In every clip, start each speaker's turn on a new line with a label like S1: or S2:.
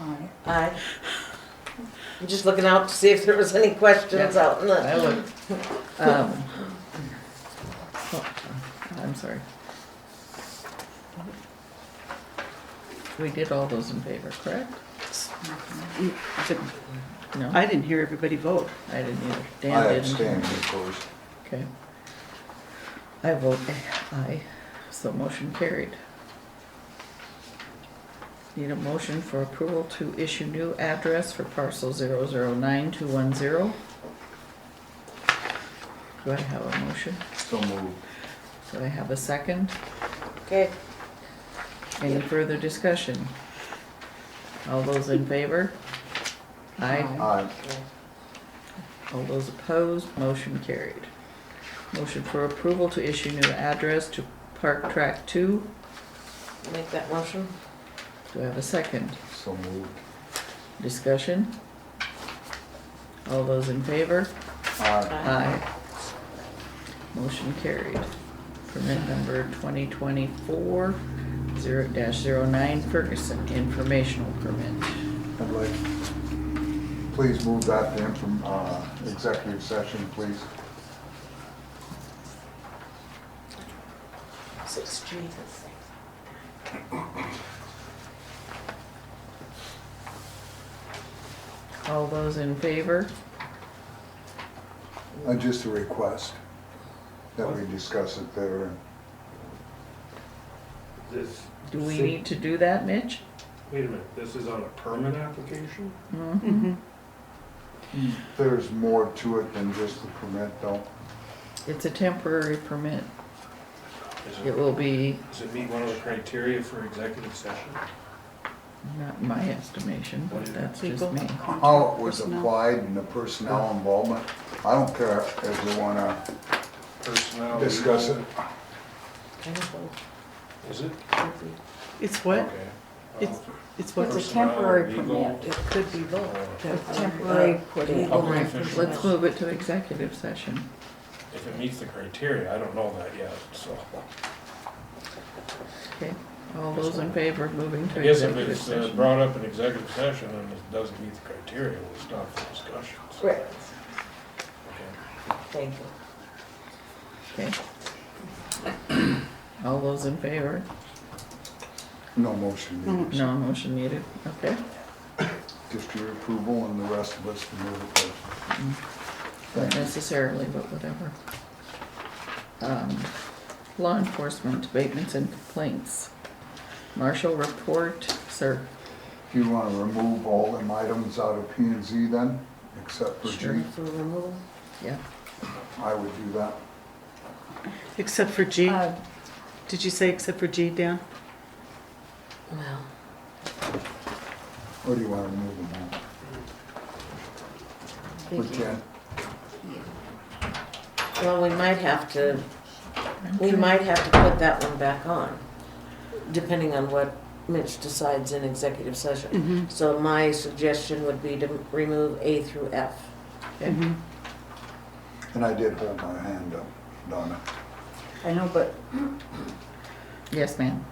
S1: Aye.
S2: Aye. I'm just looking out to see if there was any questions
S3: Yeah.
S2: out in the,
S3: I look, um, I'm sorry. We did all those in favor, correct? No,
S1: Mm, I didn't hear everybody vote.
S3: I didn't either.
S4: I
S3: Dan didn't.
S4: abstain, of course.
S3: Okay. I vote aye, so motion carried. Need a motion for approval to issue new address for parcel zero zero nine two one zero. Do I have a motion?
S4: So moved.
S3: Do I have a second?
S2: okay,
S3: Any further discussion? All those in favor? Aye.
S4: Aye.
S3: All those opposed, motion carried. Motion for approval to issue new address to Park Track Two.
S2: make that motion.
S3: Do I have a second?
S4: So moved.
S3: Discussion? All those in favor?
S4: Aye.
S3: Aye. Motion carried. Permit number 2024 0-09 Ferguson, informational permit.
S4: I'd like, please move that then from uh, executive session, please.
S2: Six G.
S3: All those in favor?
S4: Uh, Just a request that we discuss it there.
S5: This,
S3: Do we
S5: See.
S3: need to do that, Mitch?
S5: wait a minute, this is on a permit application?
S3: Mhm.
S4: There's more to it than just the permit, though.
S3: It's a temporary permit.
S5: Is
S3: It
S5: it,
S3: will be,
S5: does it meet one of the criteria for executive session?
S3: not in my estimation, but that's just me.
S4: How it was
S1: Personnel.
S4: applied and the personnel involvement, I don't care if we want to
S5: Personnel?
S4: discuss it.
S5: Is it?
S1: It's what?
S5: Okay.
S1: It's,
S5: Uh,
S1: it's
S5: What's
S1: what,
S5: a
S6: It's
S1: the-
S6: a temporary
S5: Personnel, legal.
S6: permit, it could be both.
S1: the-
S6: Temporary
S2: legal
S6: legal
S5: Okay.
S6: permit.
S3: Let's move it to executive session.
S5: If it meets the criteria, I don't know that yet, so.
S3: Okay, all those in favor of moving
S5: I
S3: to
S5: guess if
S3: executive
S5: it's uh,
S3: session?
S5: brought up in executive session and it doesn't meet the criteria, we'll stop the discussion. so.
S2: Right,
S5: Okay.
S2: thank you.
S3: Okay. All those in favor?
S4: No motion
S1: No.
S4: needed.
S3: No motion needed, okay.
S4: Just your approval and the rest of us to move it. there.
S3: Not
S4: Thank you.
S3: necessarily, but whatever. Um, Law enforcement abatements and complaints. Marshall report, sir.
S4: Do you want to remove all them items out of P and Z then, except for G?
S3: Sure. Yeah,
S4: I would do that.
S1: except for G?
S6: Uh,
S1: Did you say except for G, Dan?
S2: Well,
S4: Or do you want to remove them all?
S6: Thank
S4: For
S6: you.
S4: Jen?
S2: well, we might have to, we might have to put that one back on, depending on what Mitch decides in executive session.
S1: Mm-hmm.
S2: So my suggestion would be to remove A through F.
S1: Mm-hmm.
S4: And I did hold my hand up, Donna.
S6: I know, but
S3: yes, ma'am.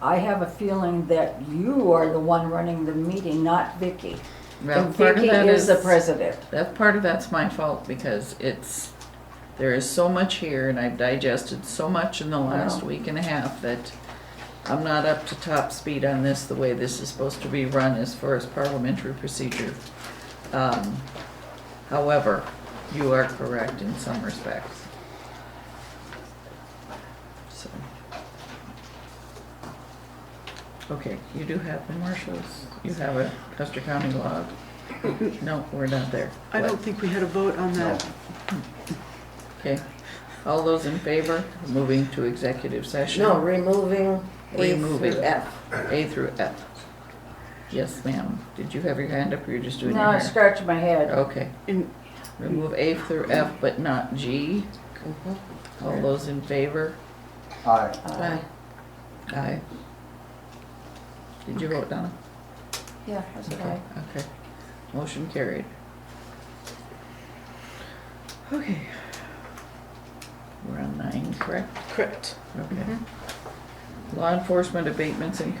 S6: I have a feeling that you are the one running the meeting, not Vicky.
S3: Well,
S6: And
S3: part of
S6: Vicky
S3: that
S6: is the president.
S3: That part of that's my fault because it's there is so much here and I've digested so much in the last
S6: Wow.
S3: week and a half that I'm not up to top speed on this the way this is supposed to be run as far as parliamentary procedure. Um, however, you are correct in some respects. So. Okay, you do have the marshals. You have a Custer County log. No, we're not there.
S1: I don't think we had a vote on
S4: No,
S1: that.
S3: Okay, all those in favor, of moving to executive session?
S2: No, removing A
S3: Removing.
S2: through F.
S3: A through F. Yes, ma'am. Did you have your hand up or you're just doing
S6: No,
S3: your
S6: I
S3: hair?
S6: scratched my head.
S3: Okay,
S1: And
S3: remove A through F but not G.
S2: Mhm.
S3: All those in favor?
S4: aye.
S6: Uh,
S3: Aye. Did you vote, Donna?
S6: Yeah, that's okay.
S3: Okay, motion carried. Okay. We're on nine, correct?
S1: correct.
S3: Okay. Law enforcement abatements and